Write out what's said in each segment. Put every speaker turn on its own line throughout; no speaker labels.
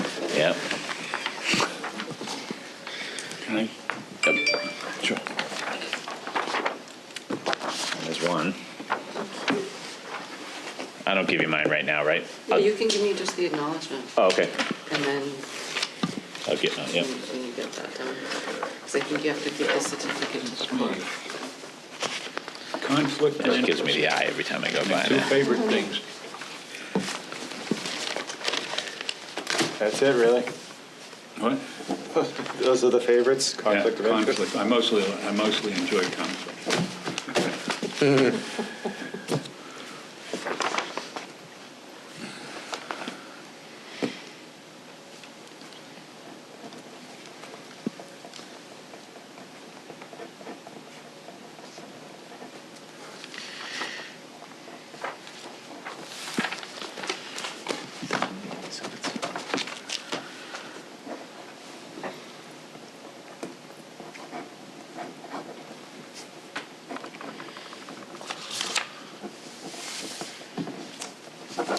Yep. Yep.
Sure.
There's one. I don't give you mine right now, right?
Yeah, you can give me just the acknowledgement,
Oh, okay.
and then
I'll get mine, yep.
when you get that done. Because I think you have to give the certificate to the clerk.
Conflict of
That just gives me the
interest.
eye every time I go
My
by
two
now.
favorite things.
That's it, really.
What?
Those are the favorites,
Yeah,
conflict of interest.
conflict. I mostly, I mostly enjoy conflict.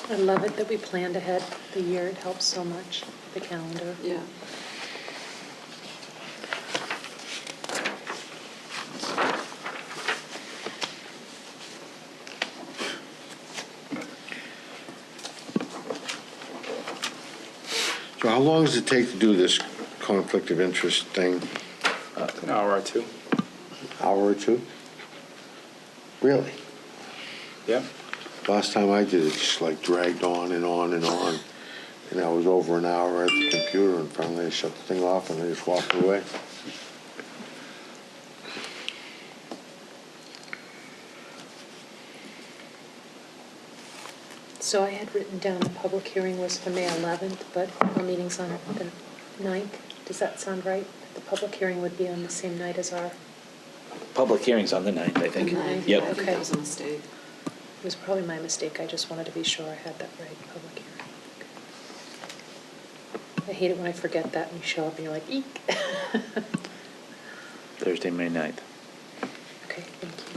I love it that we planned ahead the year. It helps so much, the calendar.
Yeah.
So how long does it take to do this conflict of interest thing?
An hour or two.
Hour or two? Really?
Yeah.
Last time I did it, just like dragged on and on and on. And I was over an hour at the computer and finally I shut the thing off and I just walked away.
So I had written down the public hearing was for May 11th, but our meeting's on the 9th. Does that sound right? The public hearing would be on the same night as our, it
Public hearing's on the ninth, I think.
And I- I
Yep.
think that was a mistake.
was probably my mistake. I just wanted to be sure I had that right, public hearing. I hate it when I forget that and you show up and you're like, eek.
Thursday, May ninth.
Okay, thank you.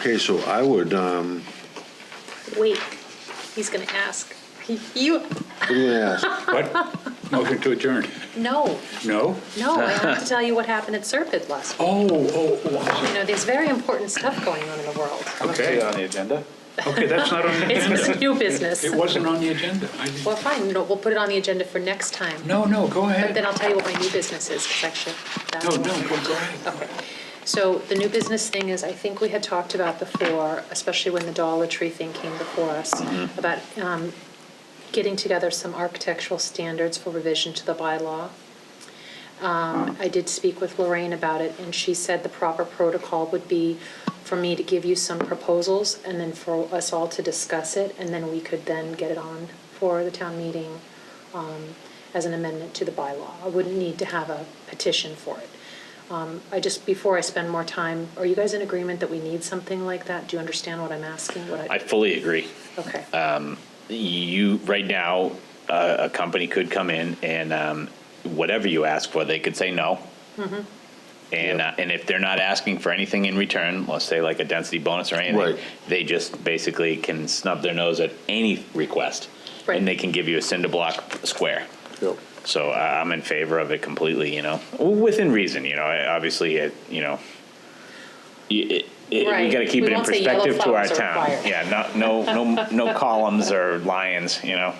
Okay, so I would, um,
Wait, he's going to ask. He- You,
what do you gonna ask?
What? Motion to adjourn.
no,
No?
no, I have to tell you what happened at Serpide last week.
Oh, oh, oh, I'm
You know, there's very important stuff going on in the world.
sorry.
Is it
okay.
on the agenda?
Okay, that's not on the
It's just
agenda.
new business.
It wasn't on the agenda. I didn't-
Well, fine, no, we'll put it on the agenda for next time.
No, no, go
But
ahead.
then I'll tell you what my new business is, because actually, that's.
No, no,
one.
go go ahead.
So the new business thing is, I think we had talked about before, especially when the Dollar Tree thing came before us,
Mm-hmm.
about um, getting together some architectural standards for revision to the bylaw. Um, I did speak with Lorraine about it, and she said the proper protocol would be for me to give you some proposals, and then for us all to discuss it, and then we could then get it on for the town meeting um, as an amendment to the bylaw. I wouldn't need to have a petition for it. Um, I just, before I spend more time, are you guys in agreement that we need something like that? Do you understand what I'm asking? What
I fully agree.
Okay.
you right now uh, a company could come in and um, whatever you ask for they could say no and uh, and if they're not asking for anything in return let's say like a density bonus or anything
Right.
they just basically can snub their nose at any request
Right.
and they can give you a cinder block square
Yep.
so I i'm in favor of it completely you know within reason you know I- obviously it, you know you- it, it, we
Right.
got to keep
We
it in
won't say yellow
perspective to our
flowers are
town
required.
yeah no no no no columns or lions you know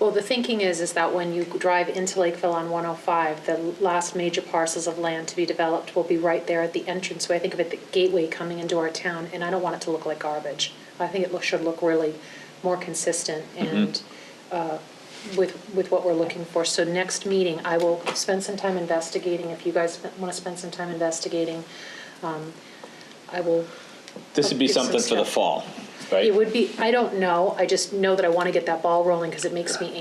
Well, the thinking is, is that when you drive into Lakeville on 105, the last major parcels of land to be developed will be right there at the entranceway. I think of it, the gateway coming into our town, and I don't want it to look like garbage. I think it lo- should look really more consistent and uh, with, with what we're looking for. So next meeting, I will spend some time investigating, if you guys want to spend some time investigating. um, I will
This would be
Get some
something for the
stuff.
fall, right?
It would be, I don't know, I just know that I want to get that ball rolling because it makes me